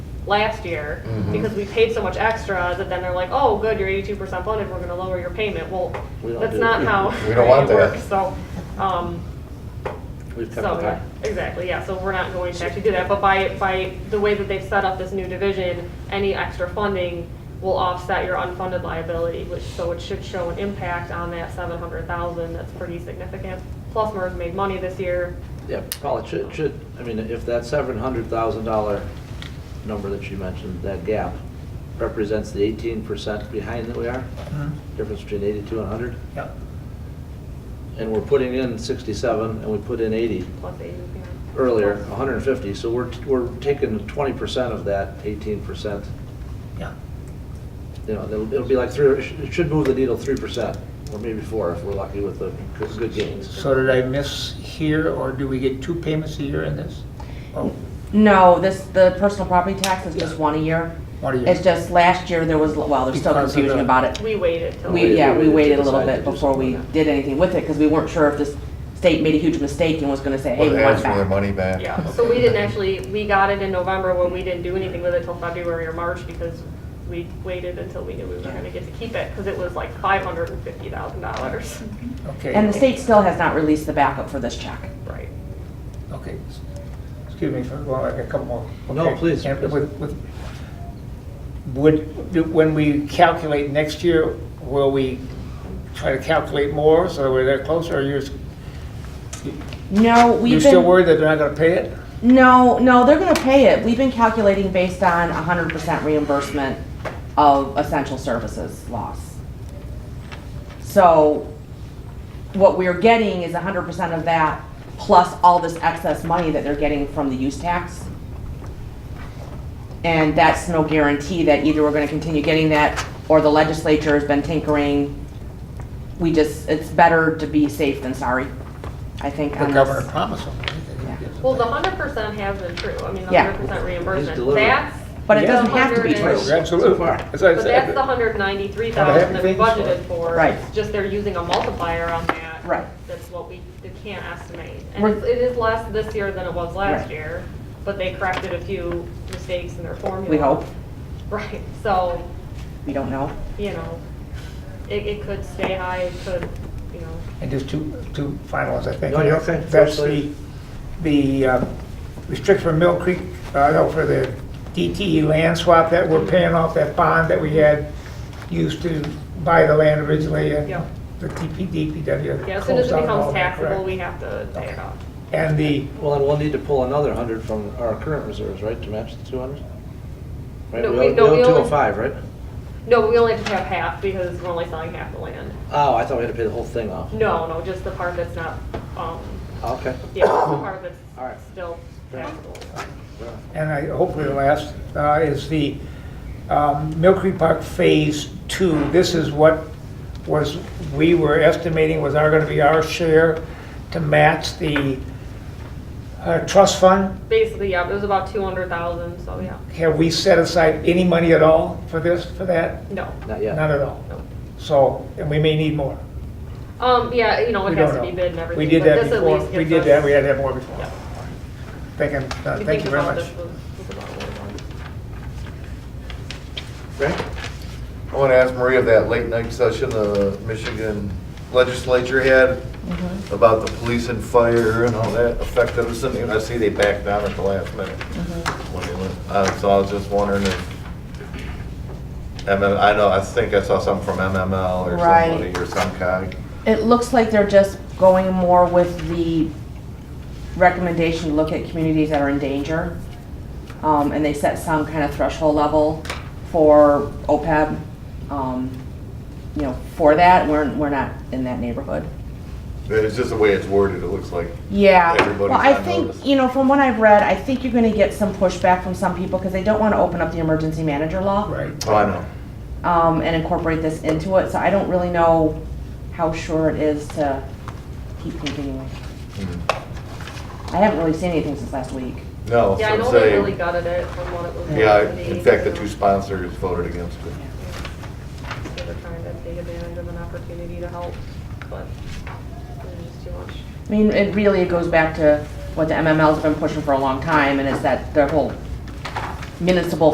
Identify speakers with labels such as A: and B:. A: last year
B: Mm-hmm.
C: Mhm.
A: because we paid so much extra that then they're like, oh, good, you're eighty-two percent funded, we're gonna lower your payment. Well,
B: We don't
A: that's
B: do-
A: not how
C: We don't want
A: it
C: that.
A: works, so, um,
B: We've kept
A: so,
B: it high.
A: exactly, yeah, so we're not going to actually do that, but by, by the way that they've set up this new division, any extra funding will offset your unfunded liability, which, so it should show an impact on that seven hundred thousand, that's pretty significant. Plus MERS made money this year,
B: Yeah, Paul, it should, should, I mean, if that seven hundred thousand dollar number that you mentioned, that gap, represents the eighteen percent behind that we are,
D: Mhm.
B: difference between eighty-two and hundred,
D: Yep.
B: and we're putting in sixty-seven, and we put in eighty
A: plus eighty, yeah.
B: earlier, hundred and fifty, so we're, we're taking twenty percent of that eighteen percent.
D: Yeah.
B: You know, it'll, it'll be like three, it should- it should move the needle three percent, or maybe four, if we're lucky with the good- good gains.
D: So did I miss here, or do we get two payments a year in this? Oh,
E: No, this, the personal property tax is just one a year.
D: One a year.
E: It's just last year, there was, well, there's still
D: Because of the-
E: confusion about it.
A: We waited till.
E: We, yeah, we
B: We
E: waited a
B: decided
E: little
B: to
E: bit
B: do
E: before we
B: something like that.
E: did anything with it, because we weren't sure if the state made a huge mistake and was gonna say, hey,
C: Well,
E: we
C: they
E: want
C: asked
E: it
C: for their
E: back.
C: money back.
A: Yeah, so we didn't actually, we got it in November when we didn't do anything with it till February or March because we waited until we knew we were gonna get to keep it, because it was like five hundred and fifty thousand dollars.
D: Okay.
E: And the state still has not released the backup for this check.
A: Right.
D: Okay. Excuse me for going back a couple more.
B: No,
D: Okay.
B: please,
D: And
B: please.
D: with- with- Would, do- when we calculate next year, will we try to calculate more so that we're there closer? Or you're,
E: No,
D: you're
E: we've
D: still
E: been,
D: worried that they're not going to pay it?
E: no, no, they're gonna pay it. We've been calculating based on hundred percent reimbursement of essential services loss. So what we're getting is hundred percent of that plus all this excess money that they're getting from the use tax. And that's no guarantee that either we're gonna continue getting that or the legislature has been tinkering. We just, it's better to be safe than sorry, I think.
D: The
E: on
D: governor
E: this.
D: promised them. right? They didn't
A: Well, the
D: give us
A: hundred percent has been true, I mean, the
E: Yeah.
A: hundred percent
B: He's
A: reimbursement,
B: delivering.
A: that's.
E: But it
D: Yeah.
E: doesn't have to be
D: a-
E: true.
D: Right, Absolutely.
B: So far.
D: That's what I
A: But that's
D: said.
A: the hundred ninety-three thousand that we
D: Not everything.
A: budgeted for.
E: Right.
A: It's Just they're using a multiplier on that.
E: Right.
A: That's what we, they can't estimate. And
E: We're-
A: it's- it is less this year than it was last
E: Right.
A: year, but they corrected a few mistakes in their formula.
E: We hope,
A: Right, so,
E: we don't know.
A: you know, it, it could stay high, it could, you know,
D: And just two, two final ones, I think.
B: No, you're okay.
D: That's
B: First,
D: the,
B: please.
D: the uh, restriction for Mill Creek, uh, no, for the DTE land swap that we're paying off that bond that we had used to buy the land originally and
A: Yeah.
D: the TP, DPW.
A: yeah, as soon as
D: closed
A: it
D: out all
A: becomes
D: that,
A: taxable, we have
D: correct?
A: to pay it off.
D: And the,
B: Well, then we'll need to pull another hundred from our current reserves, right, to match the two hundred? Right,
A: No,
B: we
A: we-
B: owe,
A: no, we
B: we owe two
A: only-
B: oh five, right?
A: No, we only have to have half because we're only selling half the land.
B: Oh, I thought we had to pay the whole thing off.
A: No, no, just the part that's not, um,
B: Okay.
A: yeah, the part
B: All right.
A: that's still taxable.
D: and I, hopefully the last, uh, is the, um, Mill Creek Park Phase Two. This is what was, we were estimating was our, gonna be our share to match the, uh, trust fund.
A: Basically, yeah, it was about two hundred thousand, so yeah,
D: Have we set aside any money at all for this, for that?
A: no,
B: Not yet.
D: None at all.
A: no.
D: So, and we may need more.
A: Um, yeah, you know,
D: We
A: it has
D: don't
A: to be
D: know.
A: bid and everything.
D: We did
A: but
D: that
A: this at
D: before,
A: least
D: we
A: gives
D: did
A: us-
D: that, we had to have more before.
A: Yeah.
D: Thank you, uh,
A: We
D: thank
A: think
D: you very
A: about
D: much.
A: this was- was about what we wanted.
B: Right?
C: I want to ask Maria of that late night session the Michigan legislature had
E: Mm-hmm.
C: about the police and fire and how that affected us. And I see they backed down at the last minute.
E: Mm-hmm.
C: when they went. Uh, So I was just wondering if, MM I know, I think I saw something from MML or
E: Right.
C: somebody or some kind.
E: It looks like they're just going more with the recommendation to look at communities that are in danger. Um, and they set some kind of threshold level for OPEB, um, you know, for that. We're, we're not in that neighborhood.
C: It's just the way it's worded, it looks like.
E: Yeah,
C: Everybody's
E: well, I
C: on notice.
E: think, you know, from what I've read, I think you're gonna get some pushback from some people because they don't wanna open up the emergency manager law.
D: Right.
C: Oh, I know.
E: um, and incorporate this into it, so I don't really know how sure it is to keep continuing. I haven't really seen anything since last week.
C: Hmm. No,
A: Yeah, I
C: so
A: know they really
C: say,
A: gutted it from what it was.
C: yeah,
A: worth
C: in fact, the
A: so
C: two sponsors voted against it.
A: They were trying to take advantage of an opportunity to help, but it was just too much.
E: I mean, it really, it goes back to what the MML's been pushing for a long time, and it's that, their whole municipal